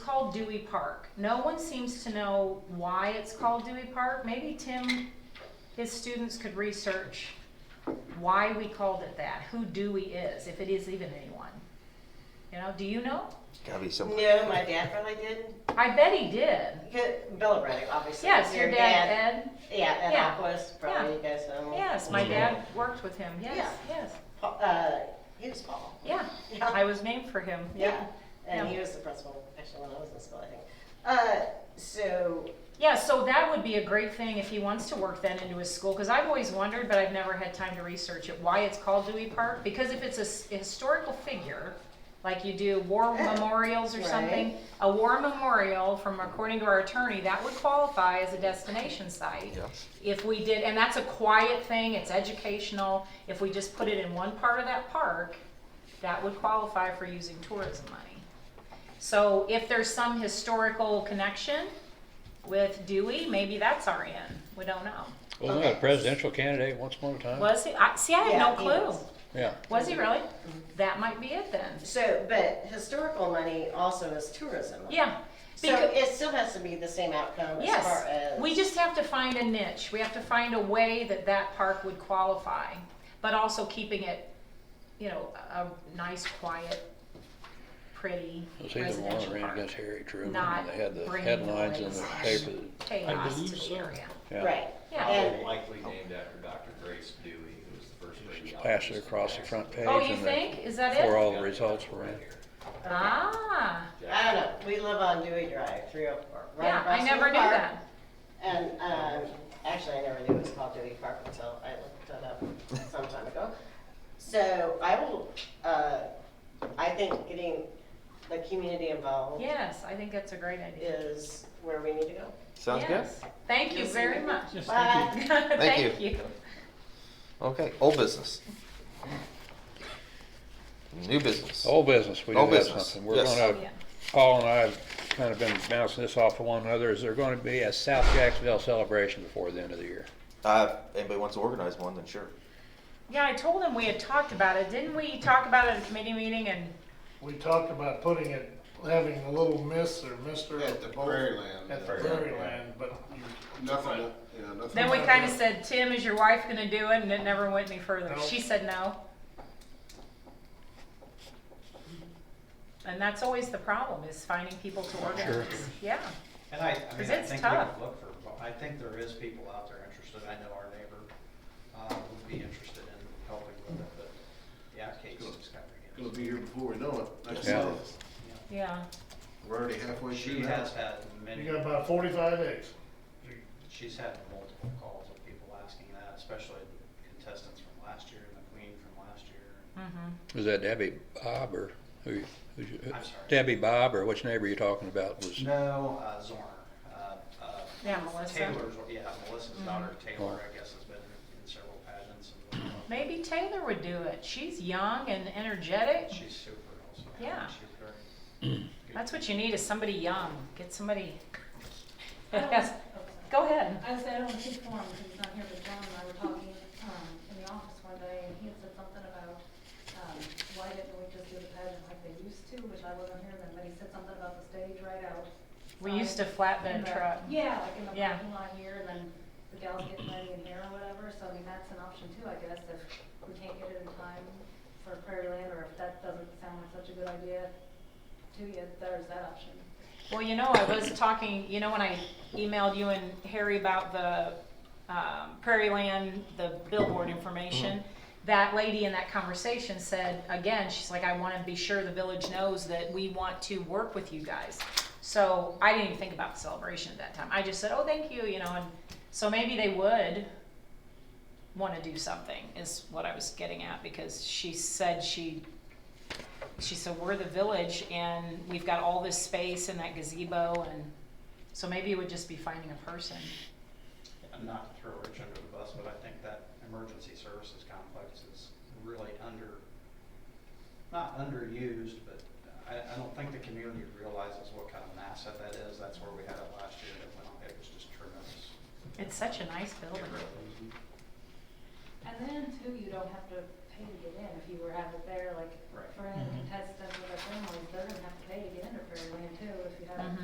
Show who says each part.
Speaker 1: called Dewey Park. No one seems to know why it's called Dewey Park. Maybe Tim, his students could research why we called it that, who Dewey is, if it is even anyone. You know, do you know?
Speaker 2: Gotta be something.
Speaker 3: No, my dad probably did.
Speaker 1: I bet he did.
Speaker 3: Good- Bill Ruddick, obviously.
Speaker 1: Yes, your dad, Ed.
Speaker 3: Yeah, and
Speaker 1: Yeah.
Speaker 3: Aquas, probably you guys know.
Speaker 1: Yes, my
Speaker 2: Mhm.
Speaker 1: dad worked with him. Yes,
Speaker 3: Yeah.
Speaker 1: yes.
Speaker 3: Pa- Uh, he was Paul.
Speaker 1: Yeah,
Speaker 3: Yeah.
Speaker 1: I was named for him.
Speaker 3: Yeah,
Speaker 1: Yeah.
Speaker 3: and
Speaker 1: Yeah.
Speaker 3: he was the principal actually when I was in school, I think. Uh, so
Speaker 1: Yeah, so that would be a great thing if he wants to work then into his school, because I've always wondered, but I've never had time to research it, why it's called Dewey Park. Because if it's a s- a historical figure, like you do war
Speaker 3: Yeah.
Speaker 1: memorials or something,
Speaker 3: Right.
Speaker 1: a war memorial from, according to our attorney, that would qualify as a destination site.
Speaker 2: Yes.
Speaker 1: If we did, and that's a quiet thing, it's educational, if we just put it in one part of that park, that would qualify for using tourism money. So if there's some historical connection with Dewey, maybe that's our end. We don't know.
Speaker 4: Wasn't that a presidential candidate once upon a time?
Speaker 1: Was he? I, see, I
Speaker 3: Yeah,
Speaker 1: have
Speaker 3: he Mm-hmm.
Speaker 1: no clue.
Speaker 3: was.
Speaker 4: Yeah.
Speaker 1: Was he really? That might be it then.
Speaker 3: so but historical money also is tourism.
Speaker 1: Yeah.
Speaker 3: So
Speaker 1: Because,
Speaker 3: it still has to be the same outcome as
Speaker 1: yes,
Speaker 3: far as
Speaker 1: we just have to find a niche. We have to find a way that that park would qualify, but also keeping it, you know, a a nice, quiet, pretty
Speaker 4: It's either one
Speaker 1: residential
Speaker 4: or
Speaker 1: park.
Speaker 4: ran against Harriet Truman,
Speaker 1: Not
Speaker 4: and they had the
Speaker 1: bringing
Speaker 4: headlines in
Speaker 1: noise.
Speaker 4: the paper. that-
Speaker 1: Chaos to
Speaker 5: believe
Speaker 1: the
Speaker 5: so.
Speaker 1: area.
Speaker 4: yeah,
Speaker 3: right.
Speaker 1: Yeah.
Speaker 3: And
Speaker 5: Likely named after Dr. Grace Dewey, who was the first lady.
Speaker 4: Passed it across the front page.
Speaker 1: Oh, you
Speaker 4: and the-
Speaker 1: think? Is that
Speaker 4: Before
Speaker 1: it?
Speaker 4: all the results were in.
Speaker 1: Ah,
Speaker 3: I don't know. We live on Dewey Drive, three oh four. Right
Speaker 1: yeah,
Speaker 3: across
Speaker 1: I
Speaker 3: from
Speaker 1: never
Speaker 3: the
Speaker 1: knew
Speaker 3: park.
Speaker 1: that.
Speaker 3: And um, actually, I never knew it was called Dewey Park until I looked it up some time ago. So I will. Uh, I think getting the community involved
Speaker 1: Yes, I think that's a great idea.
Speaker 3: is where we need to go.
Speaker 2: Sounds good.
Speaker 1: Yes. Thank you
Speaker 3: Yes,
Speaker 1: very
Speaker 3: you-
Speaker 1: much.
Speaker 5: Yes, thank you.
Speaker 3: Bye.
Speaker 1: Thank you.
Speaker 2: Okay. Old business. New business.
Speaker 4: Old business, we do
Speaker 2: Old
Speaker 4: have
Speaker 2: business,
Speaker 4: something. We're
Speaker 2: yes.
Speaker 1: Yeah.
Speaker 4: gonna, Paul and I have kind of been bouncing this off of one another. Is there gonna be a South Jacksonville celebration before the end of the year?
Speaker 2: Uh, if anybody wants to organize one, then sure.
Speaker 1: Yeah, I told him we had talked about it. Didn't we talk about it at a committee meeting and,
Speaker 6: We talked about putting it, having a little miss or mister.
Speaker 7: At the
Speaker 6: both-
Speaker 7: Prairie Land.
Speaker 6: At the Prairie Land, but you-
Speaker 7: Nothing, yeah, nothing.
Speaker 1: then we kinda said, Tim, is your wife gonna do it? And it never went any further.
Speaker 6: No.
Speaker 1: She said no. And that's always the problem, is finding people to organize. Yeah,
Speaker 8: And I, I
Speaker 1: 'Cause
Speaker 8: mean, I
Speaker 1: it's
Speaker 8: think we would
Speaker 1: tough.
Speaker 8: look for, I think there is people out there interested, I know our neighbor, uh, would be interested in helping with it, but the application's
Speaker 7: Gonna
Speaker 8: coming in.
Speaker 7: be here before we know it. Next
Speaker 4: Yeah.
Speaker 7: month.
Speaker 1: yeah.
Speaker 7: We're already halfway
Speaker 8: She
Speaker 7: through
Speaker 8: has
Speaker 7: now.
Speaker 8: had
Speaker 6: you
Speaker 8: many,
Speaker 6: got about forty-five days.
Speaker 8: she's had multiple calls of people asking that, especially contestants from last year and the queen from last year.
Speaker 1: Mhm.
Speaker 4: Was that Debbie Bob or who, who's,
Speaker 8: I'm sorry.
Speaker 4: Debbie Bob or which neighbor you talking about was?
Speaker 8: No, uh, Zorn, uh, uh,
Speaker 1: Yeah, Melissa. Mm-hmm.
Speaker 8: Taylor's, yeah, Melissa's daughter Taylor, I guess, has been in several pageants and whatnot.
Speaker 1: Maybe Taylor would do it. She's young and energetic.
Speaker 8: She's super also.
Speaker 1: Yeah.
Speaker 8: She's very. good.
Speaker 1: That's what you need is somebody young. Get somebody. Yes. Go ahead.
Speaker 9: I was, I don't keep form because he's not here, but John and I were talking, um, in the office one day, and he had said something about, um, why didn't we just do the pageant like they used to, which I wasn't here then, but he said something about the stage right out.
Speaker 1: We used to
Speaker 9: in
Speaker 1: flatbed
Speaker 9: the-
Speaker 1: truck.
Speaker 9: Yeah, like in the
Speaker 1: Yeah.
Speaker 9: parking lot here, and then the gals getting ready in here or whatever, so I mean, that's an option too, I guess, if we can't get it in time for Prairie Land, or if that doesn't sound like such a good idea to you, there's that option.
Speaker 1: Well, you know, I was talking, you know, when I emailed you and Harry about the um, Prairie Land, the billboard information, that lady in that conversation said, again, she's like, I want to be sure the village knows that we want to work with you guys. So I didn't even think about the celebration at that time. I just said, oh, thank you, you know, and so maybe they would want to do something is what I was getting at because she said she she said we're the village and we've got all this space and that gazebo and so maybe it would just be finding a person.
Speaker 8: And Not to throw Rich under the bus, but I think that emergency services complex is really under, not underused, but I, I don't think the community realizes what kind of an asset that is. That's where we had it last year. It went, it was just tremendous.
Speaker 1: It's such a nice
Speaker 8: It
Speaker 1: building.
Speaker 8: really is.
Speaker 9: And then too, you don't have to pay pay to get in, if you were have it there, like,
Speaker 8: Right.
Speaker 9: for any contestant with their families, they're gonna have to pay to get into Prairie Land too, if you have